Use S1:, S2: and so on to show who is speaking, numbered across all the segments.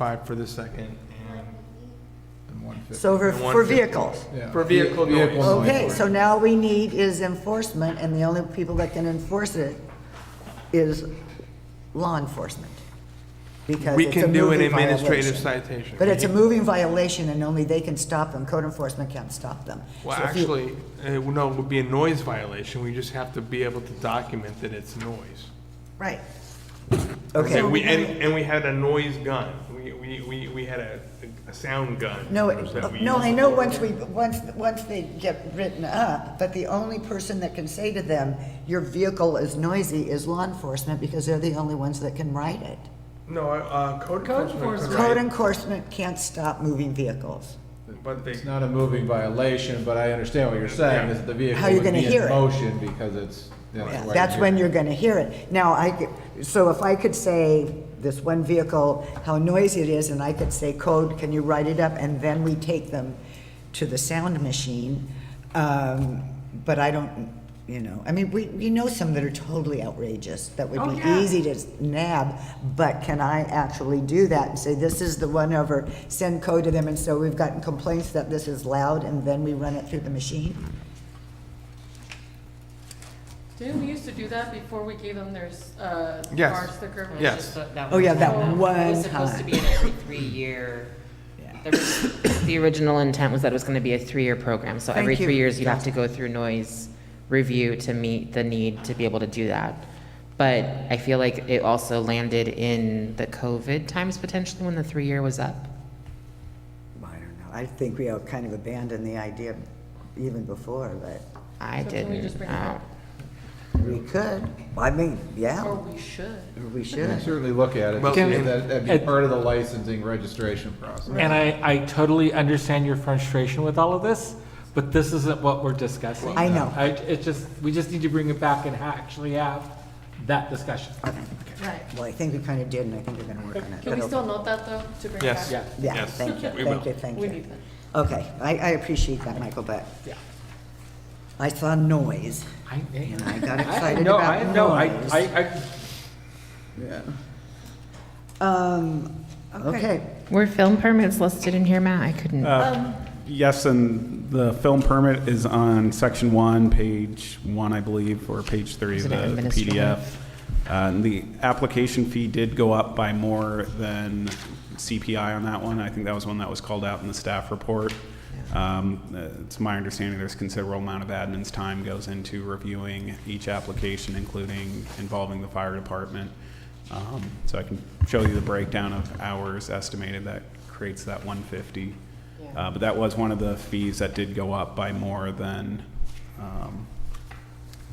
S1: five for the second, and, and one fifty.
S2: So for,
S1: And
S2: for
S1: 150.
S2: vehicles.
S1: Yeah. For uh, vehicle noise.
S2: Okay, so now we need is enforcement, and the only people that can enforce it is law enforcement. Because
S1: We
S2: it's a
S1: can do an
S2: moving
S1: administrative
S2: violation.
S1: citation.
S2: But it's a moving violation and only they can stop them, code enforcement can't stop them.
S1: Well,
S2: So if you-
S1: actually, uh, no, it would be a noise violation, we just have to be able to document that it's noise.
S2: Right.
S1: And
S2: Okay,
S1: we, and, and we had a noise gun, we, we, we, we had a, a sound gun.
S2: no,
S1: that we
S2: no,
S1: used.
S2: I know once we, once, once they get written up, but the only person that can say to them, your vehicle is noisy, is law enforcement, because they're the only ones that can write it.
S1: No, uh, code enforcement,
S2: Code
S1: could
S2: enforcement can't stop moving vehicles.
S1: write, but they,
S3: It's not a moving violation, but I understand what you're saying, is the vehicle
S2: How you
S3: would
S2: gonna
S3: be
S2: hear it?
S3: in motion because it's. you know, right
S2: That's when
S3: here.
S2: you're gonna hear it. Now, I could, so if I could say this one vehicle, how noisy it is, and I could say, code, can you write it up? And then we take them to the sound machine. Um, but I don't, you know, I mean, we, you know some that are totally outrageous, that would
S4: Oh,
S2: be
S4: yeah.
S2: easy to nab, but can I actually do that and say, this is the one over, send code to them, and so we've gotten complaints that this is loud, and then we run it through the machine?
S4: Didn't we used to do that before we gave them their, s- uh,
S1: Yes.
S4: bar sticker?
S5: It was
S1: Yes.
S5: just that- that
S2: Oh, yeah, that
S5: was-
S2: one
S5: It was supposed to be an every three-year, the ri- the original intent was that it was going to be a three-year program. So every
S2: Thank you.
S5: three years, you'd have to go through noise review to meet the need to be able to do that. But I feel like it also landed in the COVID times potentially when the three-year was up.
S2: I don't know, I think we all kind of abandoned the idea even before, but
S5: I
S4: So can we
S5: didn't.
S4: just bring it back?
S5: uh,
S2: we could, I mean,
S4: Or
S2: yeah,
S4: we should.
S2: we
S3: You can
S2: should.
S3: certainly look at it,
S1: Well,
S3: because
S1: and-
S3: that- that'd be
S6: and-
S3: part of the licensing registration process.
S6: And I, I totally understand your frustration with all of this, but this isn't what we're discussing.
S2: I know.
S6: I, it's just, we just need to bring it back and ha- actually have that discussion.
S4: Right.
S2: Well, I think we kind of did, and I think we're gonna work on it.
S4: Can we
S2: but-
S4: still note that though, to bring back?
S1: yes.
S6: Yeah.
S2: Yeah,
S1: yes,
S2: thank you,
S1: we
S2: thank
S1: will.
S2: you, thank
S4: We need
S2: you.
S4: that.
S2: Okay, I, I appreciate that, Michael, but
S6: Yeah.
S2: I saw noise,
S6: I,
S2: and I got
S6: I,
S2: excited
S6: no, I,
S2: about
S6: no, I,
S2: noise.
S6: I, I-
S2: Um, okay,
S5: Were film permits listed in here, Matt? I couldn't.
S7: Uh, Yes, and the film permit is on section one, page one, I believe, or page three
S5: Is
S7: of
S5: it
S7: the the
S5: administrative?
S7: PDF. Uh, and the application fee did go up by more than CPI on that one. I think that was one that was called out in the staff report. Um, uh, It's my understanding there's considerable amount of admin's time goes into reviewing each application, including involving the fire department. Um, So I can show you the breakdown of hours estimated that creates that 150. Uh, But that was one of the fees that did go up by more than um,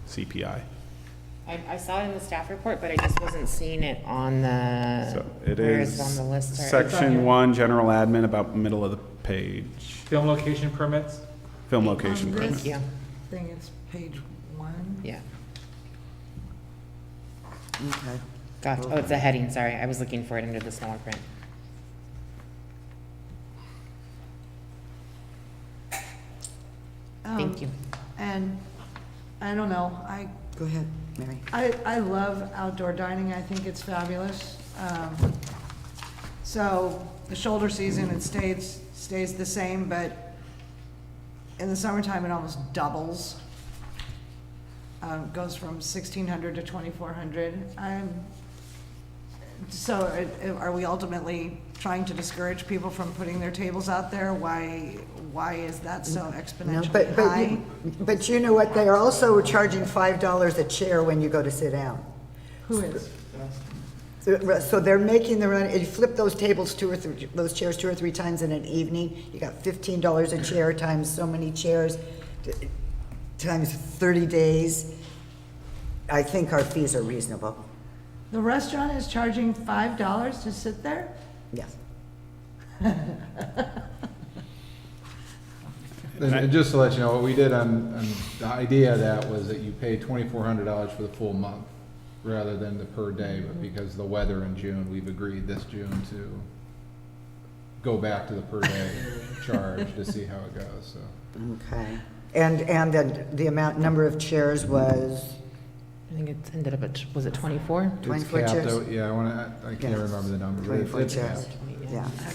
S7: CPI.
S5: I, I saw it in the staff report, but I just wasn't seeing it on the,
S7: So it
S5: Uh, where is it on
S7: is
S5: the list? or-
S7: section one, general admin, about middle of the page,
S6: film location permits,
S7: film location
S5: Thank
S7: permit.
S5: you,
S2: thing it's page one.
S5: yeah.
S2: Okay,
S5: Gotcha. Oh, it's a heading, sorry. I was looking for it under the smaller print. Thank you.
S8: And, I don't know, I,
S2: go ahead, Mary.
S8: I, I love outdoor dining, I think it's fabulous. Um, So, the shoulder season, it stays, stays the same, but in the summertime, it almost doubles. Um, Goes from sixteen hundred to twenty-four hundred. So, it- are we ultimately trying to discourage people from putting their tables out there? Why, why is that so
S2: No,
S8: exponentially
S2: but, but,
S8: high?
S2: you- but you know what, they are also charging five dollars a chair when you go to sit down.
S8: Who is?
S2: So so they're making their own, if you flip those tables two or three, those chairs two or three times in an evening, you got fifteen dollars a chair times so many chairs, t- times thirty days. I think our fees are reasonable,
S8: The restaurant is charging five dollars to sit there?
S2: yes.
S3: And and just to let you know, what we did on, on the idea of that was that you pay twenty-four hundred dollars for the full month rather than the per day, but because of the weather in June, we've agreed this June to go back to the per day charge to see how it goes, so.
S2: Okay. And, and then the amount, number of chairs was,
S5: I think it ended up at, was it 24?
S3: It's
S2: 24
S3: capped
S2: chairs?
S3: out- Yeah, I wanna, I I can't
S2: Yeah.
S3: remember the number. but it's-
S2: Twenty-four
S3: it's
S2: chairs.
S3: capped.
S2: yeah.